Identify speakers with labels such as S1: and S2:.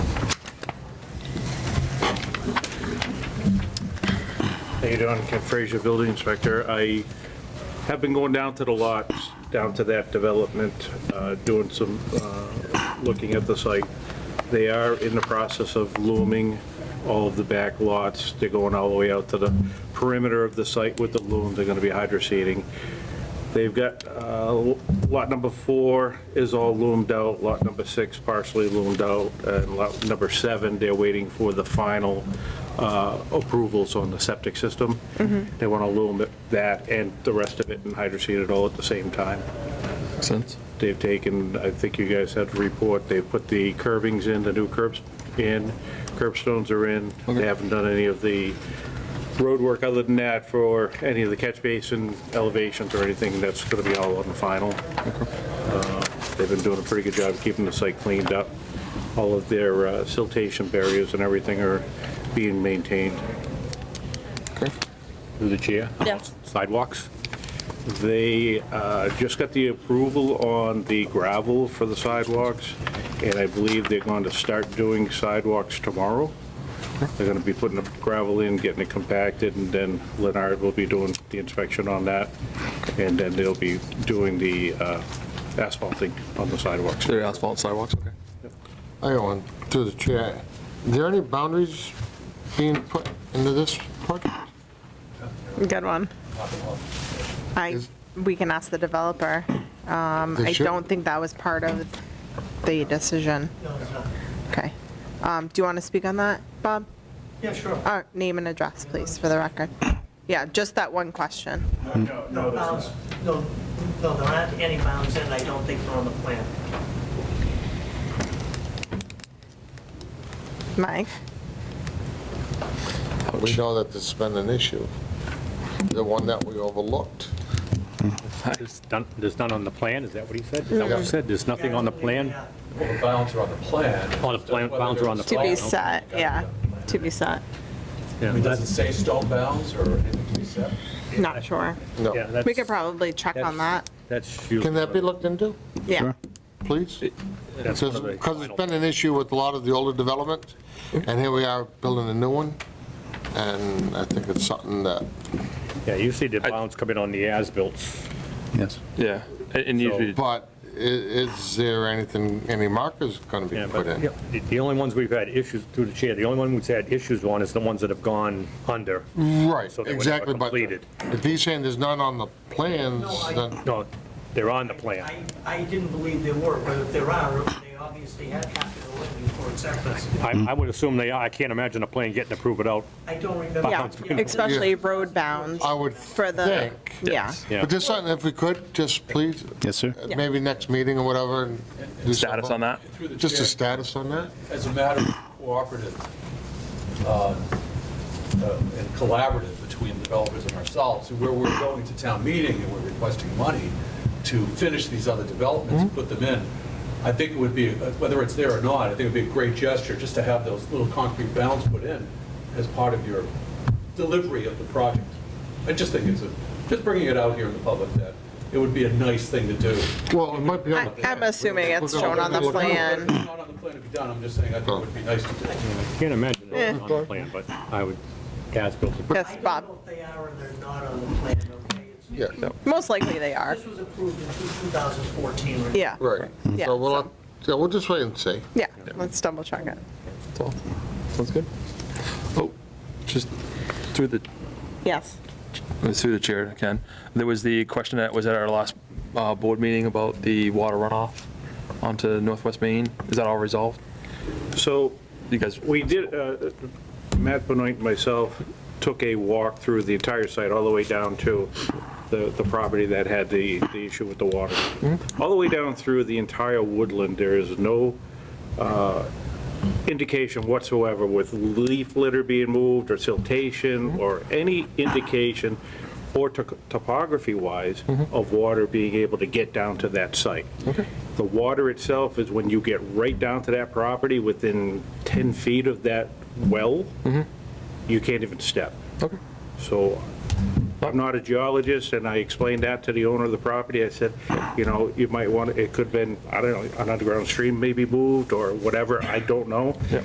S1: you doing, Ken Frazier, Building Inspector. I have been going down to the lots, down to that development, uh, doing some, uh, looking at the site. They are in the process of looming all of the back lots. They're going all the way out to the perimeter of the site with the loom. They're going to be hydro seeding. They've got, uh, lot number four is all loomed out, lot number six partially loomed out, and lot number seven, they're waiting for the final uh, approvals on the septic system. They want to loom it- that and the rest of it and hydroseed it all at the same time.
S2: Makes sense.
S1: They've taken, I think you guys had a report, they've put the curvings in, the new curbs in, curb stones are in. They
S2: Okay.
S1: haven't done any of the road work other than that for any of the catch basin elevations or anything. That's going to be all on the final. Uh, They've been doing a pretty good job keeping the site cleaned up. All of their uh, siltation barriers and everything are being maintained
S2: Okay.
S1: through the chair.
S3: Yeah.
S1: Sidewalks. They uh, just got the approval on the gravel for the sidewalks, and I believe they're going to start doing sidewalks tomorrow. They're going to be putting the gravel in, getting it compacted, and then Leonard will be doing the inspection on that, and then they'll be doing the uh, asphalting on the sidewalks.
S2: They're asphalt sidewalks, okay.
S4: I got one, through the chair. Is there any boundaries being put into this project?
S3: Good one. I,
S4: Is-
S3: we can ask the developer. Um,
S4: They
S3: I
S4: should-
S3: don't think that was part of the decision. Okay. Um, do you want to speak on that, Bob?
S5: Yeah, sure.
S3: Uh, name and address, please, for the record. Yeah, just that one question.
S5: No, no, no, no, there aren't any bounds, and I don't think they're on the plan.
S3: Mike?
S4: We know that this has been an issue, the one that we overlooked.
S6: There's none, there's none on the plan, is that what he said? Is that what he said? There's nothing on the plan?
S5: Yeah.
S7: Well, the bounds are on the plan.
S6: On the plan- bounds are on the
S3: To
S6: plan.
S3: be set, yeah, to be set.
S6: Yeah,
S7: Does it
S6: that's-
S7: say stone bounds or anything to be said?
S3: Not sure.
S4: No.
S6: yeah, that's-
S3: We could probably check on that.
S6: That's you.
S4: Can that be looked into,
S3: Yeah.
S4: please?
S6: That's one of the
S4: Because it's
S6: final-
S4: been an issue with a lot of the older developments, and here we are building a new one, and I think it's something that,
S6: Yeah, you see the bounds coming on the as-built.
S8: Yes.
S2: Yeah, and- and usually,
S4: but i- is there anything, any markers going to
S6: Yeah,
S4: be put
S6: but
S4: in?
S6: the- the only ones we've had issues, through the chair, the only one we've had issues on is the ones that have gone under.
S4: Right,
S6: So they were never
S4: exactly, but
S6: completed.
S4: if he's saying there's none on the plans,
S5: No, I-
S4: then,
S6: No, they're on the plan.
S5: I, I didn't believe there were, but if there are, they obviously had have to go in before acceptance.
S8: Hmm.
S6: I, I would assume they are. I can't imagine a plan getting approved without,
S5: I don't remember.
S3: Yeah, especially road bounds
S4: I would
S3: for the,
S4: think.
S3: yeah.
S6: yeah.
S4: But just something, if we could, just please,
S8: Yes, sir.
S4: uh, maybe next meeting or whatever. and do
S2: status
S4: something.
S2: on that?
S7: Through the
S4: Just a
S7: chair,
S4: status on that?
S7: as a matter of cooperative uh, uh, and collaborative between developers and ourselves, where we're going to town meeting and we're requesting money to finish these other developments and put them in, I think it would be, uh, whether it's there or not, I think it would be a great gesture just to have those little concrete bounds put in as part of your delivery of the project. I just think it's, a just bringing it out here in the public that it would be a nice thing to do.
S4: Well, it might be on
S3: I-
S4: the,
S3: I'm assuming it's shown on the plan.
S7: It's Not on the plan to be done, I'm just saying I think it would be nice to do.
S6: I can't imagine it was on the plan, but I would, as-built.
S3: Yes,
S5: I
S3: Bob.
S5: don't know if they are or they're not on the plan, okay? It's-
S4: yeah,
S3: Most likely they are.
S5: This was approved in 2014, right?
S3: Yeah,
S4: right.
S3: Yeah,
S4: So we'll, so we'll just wait and see.
S3: yeah. Let's double check it.
S2: That's all. Sounds good. Oh, just through the,
S3: Yes.
S2: through the chair, Ken. There was the question that was at our last uh, board meeting about the water runoff onto Northwest Main. Is that all resolved?
S1: So
S2: You guys,
S1: We did, uh, Matt Benoit and myself took a walk through the entire site, all the way down to the, the property that had the, the issue with the water. All the way down through the entire woodland, there is no uh, indication whatsoever with leaf litter being moved, or siltation, or any indication, or to- topography-wise, of water being able to get down to that site. The water itself is when you get right down to that property, within 10 feet of that well, you can't even step.
S2: Okay.
S1: So I'm not a geologist, and I explained that to the owner of the property. I said, you know, you might want, it could have been, I don't know, an underground stream maybe moved or whatever, I don't know.